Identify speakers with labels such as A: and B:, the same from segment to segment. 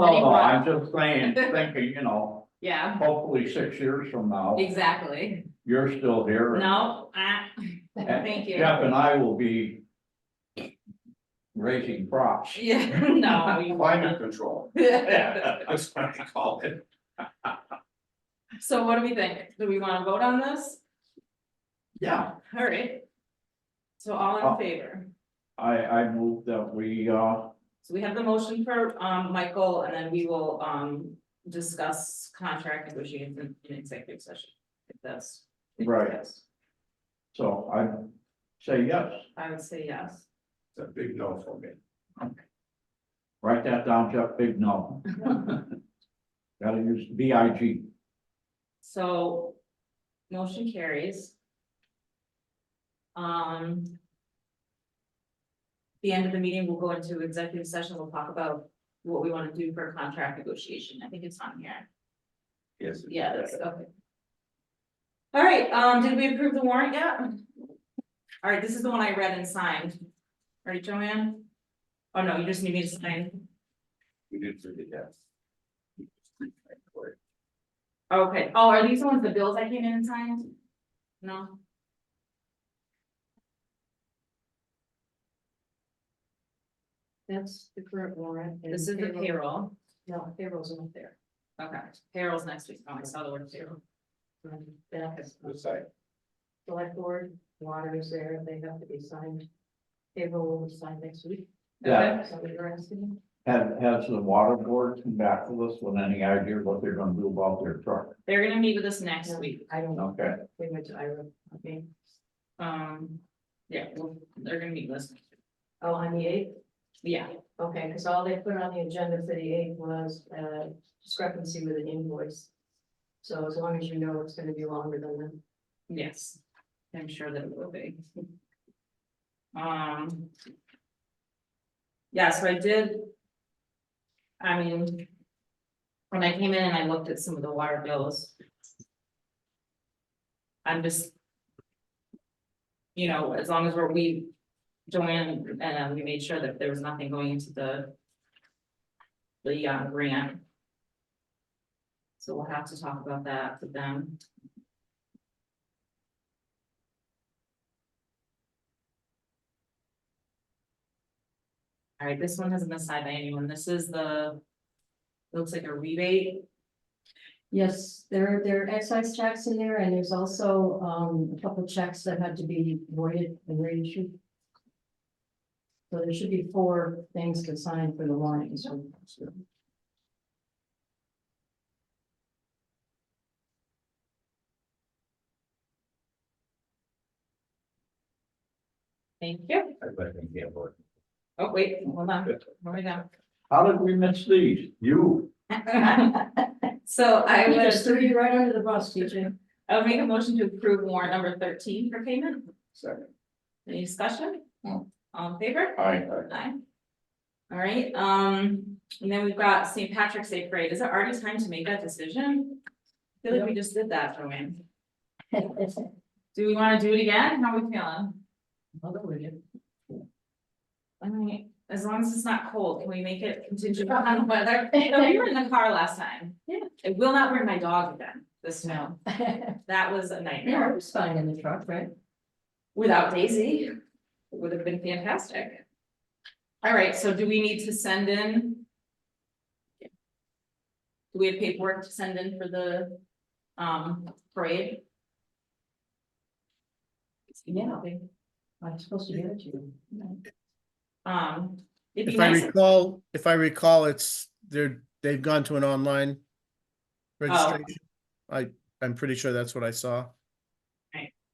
A: No, no,
B: Anymore.
A: Oh, I'm just saying, thinking, you know,
B: Yeah,
A: hopefully six years from now,
B: exactly.
A: you're still here.
B: No, ah,
A: and
B: thank you.
A: Jeff and I will be raising crops.
B: Yeah, no, you
C: Climate
B: won't.
C: control. That's what I call it.
B: So what do we think? Do we wanna vote on this?
A: Yeah.
B: All right. So all
A: Oh.
B: in favor?
A: I, I move that we, uh,
B: So we have the motion for, um, Michael, and then we will, um, discuss contract negotiations in in executive session. If that's. if
A: Right.
B: that's-
A: so I say yes,
B: I would say yes.
C: It's a big no for me.
A: write that down, Jeff, big no. Gotta use B I G.
B: So, motion carries. Um. The end of the meeting, we'll go into executive session, we'll talk about what we wanna do for contract negotiation, I think it's on here,
C: Yes.
B: yeah, that's, okay. All right, um, did we approve the warrant yet? All right, this is the one I read and signed, right, Joanne? Oh, no, you just need me to sign,
C: We did for the yes.
B: okay, oh, are these the ones, the bills I came in and signed? No?
D: That's the current warrant. and
B: This is the payroll,
D: No, payroll's not there.
B: okay, payroll's next week, oh, I saw the word payroll.
D: Um, That is,
C: The site.
D: select board, water is there, they have to be signed. Payroll will be signed next week.
A: Yeah.
D: Is that what you're asking?
A: Has, has the water board come back to us with any idea what they're gonna do about their truck?
B: They're gonna meet with us next
D: No,
B: week,
D: I don't know,
A: Okay,
D: we went to Ira, okay,
B: um, yeah, well, they're gonna meet with us,
D: oh, on the eighth,
B: yeah,
D: okay, because all they put on the agenda for the eighth was uh discrepancy with an invoice. So as long as you know it's gonna be longer than that.
B: yes, I'm sure that it will be. Um. Yeah, so I did. I mean. When I came in and I looked at some of the water bills. I'm just. You know, as long as we're, we, Joanne, and uh, we made sure that there was nothing going into the. The uh, grant. So we'll have to talk about that with them. All right, this one hasn't been signed by anyone. This is the. Looks like a rebate.
D: Yes, there, there are excise tax in there, and there's also, um, a couple checks that had to be voided and reissued. So there should be four things to sign for the warning, so.
B: Thank you.
C: I bet they can't vote.
B: Oh, wait, hold on, where we go?
A: how did we miss these? You,
B: So I
D: You just
B: would,
D: threw you right under the bus, TJ.
B: I would make a motion to approve warrant number thirteen for payment.
C: Second.
B: Any discussion?
C: No.
B: All in favor?
A: I,
B: Aye. All right, um, and then we've got St. Patrick's Day Parade. Is it already time to make that decision? I feel like we just did that, Joanne. Do we wanna do it again? How are we feeling? I mean, as long as it's not cold, can we make it contingent on weather? No, we were in the car last time.
D: Uh-huh. Yeah.
B: I will not bring my dog again this snow.
D: No,
B: That was a
D: it
B: nightmare.
D: was fine in the truck, right?
B: Without Daisy, it would have been fantastic. All right, so do we need to send in? Do we have paperwork to send in for the um parade?
D: Yeah. I'm supposed to give it to you.
B: Um, it'd be
E: If I
B: nice.
E: recall, if I recall, it's, they're, they've gone to an online
B: Oh.
E: registration. I, I'm pretty sure that's what I saw.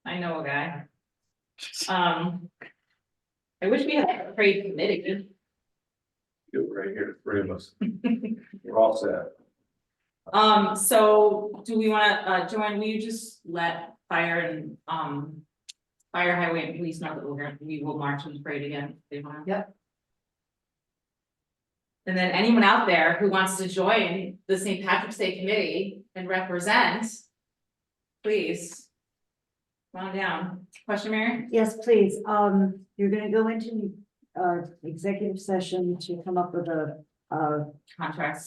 B: I know a guy. Um. I wish we had a parade committee.
C: Do it right here, three of us. We're all set.
B: Um, so do we wanna, uh, Joanne, will you just let fire and, um. Fire highway and police know that we're gonna, we will march and parade again, if they want.
D: Yep.
B: And then anyone out there who wants to join the St. Patrick's Day Committee and represent. Please. Come on down. Question, Mary?
F: Yes, please. Um, you're gonna go into, uh, executive session to come up with a, uh,
B: Contracts.